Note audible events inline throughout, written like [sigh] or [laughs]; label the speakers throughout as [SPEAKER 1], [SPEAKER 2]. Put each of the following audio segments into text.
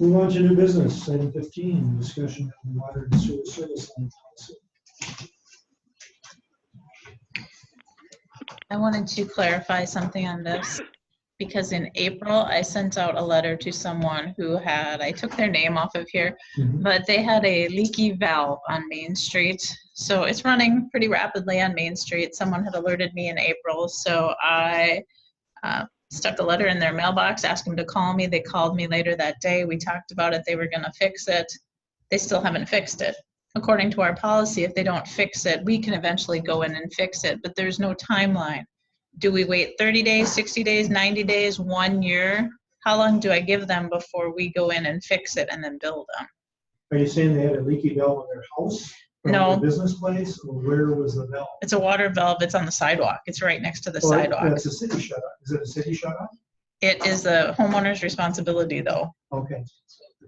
[SPEAKER 1] Move on to new business, item fifteen, discussion of water and sewer service line policy.
[SPEAKER 2] I wanted to clarify something on this, because in April, I sent out a letter to someone who had, I took their name off of here,
[SPEAKER 1] Mhm.
[SPEAKER 2] but they had a leaky valve on Main Street. So it's running pretty rapidly on Main Street. Someone had alerted me in April, so I uh, stuck a letter in their mailbox, asked them to call me. They called me later that day. We talked about it. They were going to fix it. They still haven't fixed it. According to our policy, if they don't fix it, we can eventually go in and fix it, but there's no timeline. Do we wait 30 days, 60 days, 90 days, one year? How long do I give them before we go in and fix it and then bill them?
[SPEAKER 1] Are you saying they had a leaky valve in their house? or
[SPEAKER 2] No.
[SPEAKER 1] their Business place, or where was the valve?
[SPEAKER 2] It's a water valve. It's on the sidewalk. It's right next to the
[SPEAKER 1] Well,
[SPEAKER 2] sidewalk.
[SPEAKER 1] That's a city shut off, is it a city shut off?
[SPEAKER 2] It is the homeowner's responsibility, though.
[SPEAKER 1] Okay,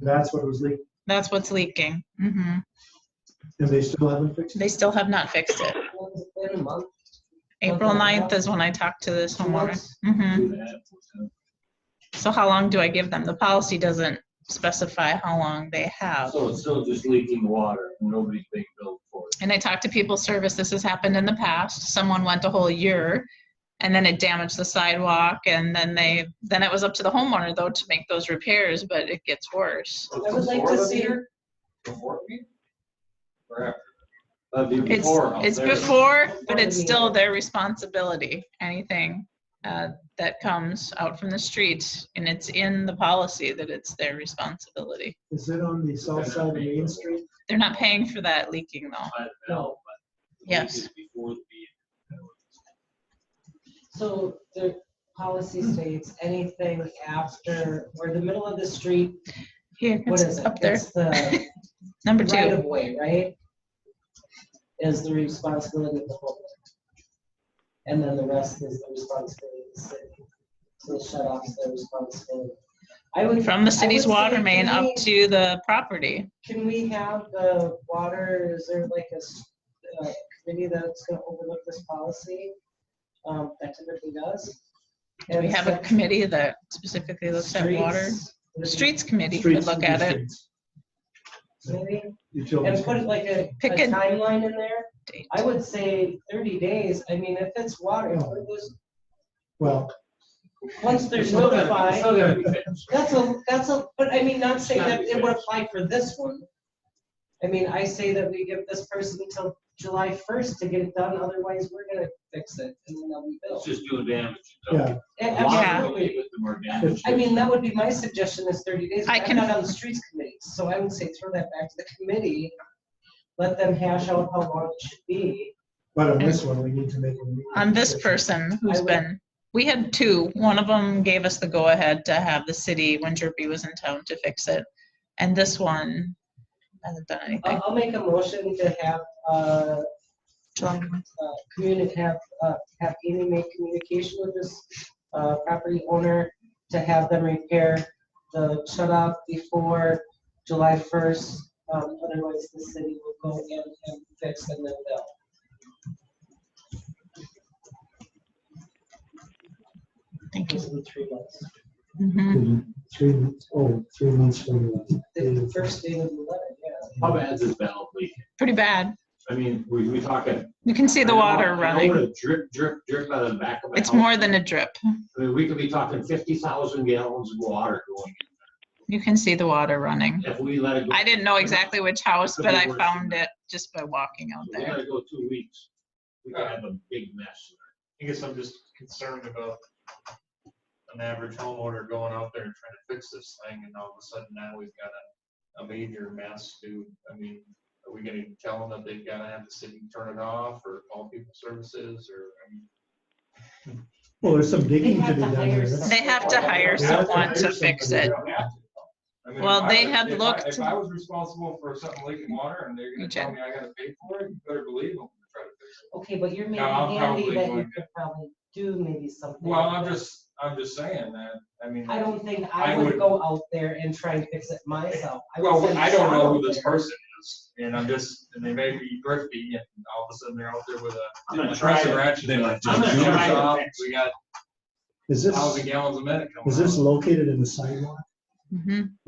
[SPEAKER 1] that's what it was leaking,
[SPEAKER 2] That's what's leaking. hmm
[SPEAKER 1] and they still haven't fixed it?
[SPEAKER 2] They still have not fixed it.
[SPEAKER 3] Been a month.
[SPEAKER 2] April 9th is when I talked to this homeowner. hmm So how long do I give them? The policy doesn't specify how long they have.
[SPEAKER 4] So it's still just leaking water, and nobody's being billed for it.
[SPEAKER 2] And I talked to people service. This has happened in the past. Someone went a whole year and then it damaged the sidewalk and then they, then it was up to the homeowner though to make those repairs, but it gets worse.
[SPEAKER 3] I would like to see,
[SPEAKER 4] Before the meeting? Or after? That'd be
[SPEAKER 2] It's,
[SPEAKER 4] before. out
[SPEAKER 2] it's
[SPEAKER 4] there.
[SPEAKER 2] before, but
[SPEAKER 3] the
[SPEAKER 2] it's still
[SPEAKER 3] meeting.
[SPEAKER 2] their responsibility, anything uh, that comes out from the street. And it's in the policy that it's their responsibility.
[SPEAKER 1] Is it on the south side of Main Street?
[SPEAKER 2] They're not paying for that leaking though.
[SPEAKER 4] By the bell, but the
[SPEAKER 2] Yes.
[SPEAKER 4] week is Before the meeting.
[SPEAKER 3] so the policy states anything after, or the middle of the street,
[SPEAKER 2] Here,
[SPEAKER 3] what is
[SPEAKER 2] it's
[SPEAKER 3] it?
[SPEAKER 2] up there,
[SPEAKER 3] It's the
[SPEAKER 2] [laughs] number
[SPEAKER 3] right
[SPEAKER 2] two.
[SPEAKER 3] of way, right? Is the responsibility of the homeowner. And then the rest is the responsibility of the city. So the shut off is their responsibility. I would.
[SPEAKER 2] From the
[SPEAKER 3] I
[SPEAKER 2] city's
[SPEAKER 3] would say,
[SPEAKER 2] water main
[SPEAKER 3] can
[SPEAKER 2] up
[SPEAKER 3] we-
[SPEAKER 2] to the property.
[SPEAKER 3] Can we have the water, is there like a s- uh, committee that's gonna overlook this policy? Um, That typically does.
[SPEAKER 2] Do we have a committee that specifically looks at water? The streets committee could
[SPEAKER 1] Streets,
[SPEAKER 2] look at it.
[SPEAKER 1] streets,
[SPEAKER 3] Maybe,
[SPEAKER 1] Utilities.
[SPEAKER 3] and put like a a
[SPEAKER 2] Pick a-
[SPEAKER 3] timeline in there.
[SPEAKER 2] Date.
[SPEAKER 3] I would say thirty days, I mean, if it's water,
[SPEAKER 1] Yeah.
[SPEAKER 3] it was-
[SPEAKER 1] Well,
[SPEAKER 3] once
[SPEAKER 4] It's
[SPEAKER 3] there's
[SPEAKER 4] still gonna- it's
[SPEAKER 3] notified,
[SPEAKER 4] still gonna be fixed.
[SPEAKER 3] that's a, that's a, but I mean, not saying that it would apply for this one. I mean, I say that we give this person until July first to get it done, otherwise we're gonna fix it and then they'll be
[SPEAKER 4] It's
[SPEAKER 3] billed.
[SPEAKER 4] just doing damage.
[SPEAKER 1] yeah,
[SPEAKER 4] A
[SPEAKER 3] A-
[SPEAKER 4] lot
[SPEAKER 2] Yeah.
[SPEAKER 4] of
[SPEAKER 3] Absolutely.
[SPEAKER 4] with the more damage.
[SPEAKER 3] I mean, that would be my suggestion is thirty days.
[SPEAKER 2] I
[SPEAKER 3] but
[SPEAKER 2] can-
[SPEAKER 3] I'm not on the streets committee, so I would say throw that back to the committee. Let them hash out how long it should be.
[SPEAKER 1] but on this one, we need to make. a meeting.
[SPEAKER 2] on this person
[SPEAKER 3] I
[SPEAKER 2] who's
[SPEAKER 3] would-
[SPEAKER 2] been, we had two. One of them gave us the go-ahead to have the city, when Jerby was in town, to fix it. And this one hasn't done anything.
[SPEAKER 3] I'll, I'll make a motion to have, uh, uh, communi- have, uh, have Amy make communication with this, uh, property owner to have them repair the shut off before July first. Um, otherwise the city will go in and fix and then bill.
[SPEAKER 2] Thank you.
[SPEAKER 3] Those are the three months.
[SPEAKER 2] Mhm.
[SPEAKER 1] Three, months- oh, three months from the.
[SPEAKER 3] The first day of the letter, yeah.
[SPEAKER 4] How bad is this valve leaking?
[SPEAKER 2] Pretty bad.
[SPEAKER 4] I mean, we, we talking.
[SPEAKER 2] You can see the water running.
[SPEAKER 4] Drip, drip, drip out of the back of my house.
[SPEAKER 2] It's more than a drip.
[SPEAKER 4] I mean, we could be talking fifty thousand gallons of water going,
[SPEAKER 2] You can see the water running.
[SPEAKER 4] in. if we let it go.
[SPEAKER 2] I didn't know exactly which house,
[SPEAKER 4] Could
[SPEAKER 2] but
[SPEAKER 4] be
[SPEAKER 2] I
[SPEAKER 4] worse than
[SPEAKER 2] found it just by walking out
[SPEAKER 4] If We
[SPEAKER 2] there.
[SPEAKER 4] let it go two weeks, we could have a big mess.
[SPEAKER 5] I guess I'm just concerned about an average homeowner going out there and trying to fix this thing, and all of a sudden now we've got a, a major mess to, I mean, are we gonna tell them that they've gotta have the city turn it off, or call people services, or, I mean,
[SPEAKER 1] Well, there's some digging
[SPEAKER 3] have
[SPEAKER 1] to be
[SPEAKER 3] to
[SPEAKER 1] done
[SPEAKER 3] hire
[SPEAKER 1] there.
[SPEAKER 3] some-
[SPEAKER 2] They have to hire
[SPEAKER 5] Yeah, I'd
[SPEAKER 2] someone
[SPEAKER 5] hire
[SPEAKER 2] to fix
[SPEAKER 5] somebody.
[SPEAKER 2] it.
[SPEAKER 5] They don't have to, though. I mean,
[SPEAKER 2] Well,
[SPEAKER 5] if I
[SPEAKER 2] they
[SPEAKER 5] was-
[SPEAKER 2] have
[SPEAKER 5] if I-
[SPEAKER 2] looked-
[SPEAKER 5] If I was responsible for something leaking water, and they're
[SPEAKER 2] You
[SPEAKER 5] gonna tell me I gotta pay for it, you better believe them, try to fix it.
[SPEAKER 3] Okay, but you're maybe
[SPEAKER 5] No, I'm
[SPEAKER 3] handy
[SPEAKER 5] probably
[SPEAKER 3] that you
[SPEAKER 5] going
[SPEAKER 3] could probably do maybe something.
[SPEAKER 5] Well, I'm just, I'm just saying that, I mean.
[SPEAKER 3] I don't think I
[SPEAKER 5] I
[SPEAKER 3] would
[SPEAKER 5] would-
[SPEAKER 3] go out there and try and fix it myself. would
[SPEAKER 5] Well,
[SPEAKER 3] send
[SPEAKER 5] I don't
[SPEAKER 3] Sean
[SPEAKER 5] know
[SPEAKER 3] out
[SPEAKER 5] who this
[SPEAKER 3] there.
[SPEAKER 5] person is, and I'm just, and they may be thrifty, and all of a sudden they're out there with
[SPEAKER 4] I'm gonna
[SPEAKER 5] a
[SPEAKER 4] try
[SPEAKER 5] press and
[SPEAKER 4] it.
[SPEAKER 5] ratchet.
[SPEAKER 4] They like
[SPEAKER 5] I'm
[SPEAKER 4] just
[SPEAKER 5] gonna
[SPEAKER 4] do
[SPEAKER 5] try
[SPEAKER 4] it.
[SPEAKER 5] it. We got
[SPEAKER 1] Is
[SPEAKER 5] thousand
[SPEAKER 1] this,
[SPEAKER 5] gallons of minute coming
[SPEAKER 1] is this
[SPEAKER 5] out.
[SPEAKER 1] located in the sidewalk?
[SPEAKER 2] Mhm.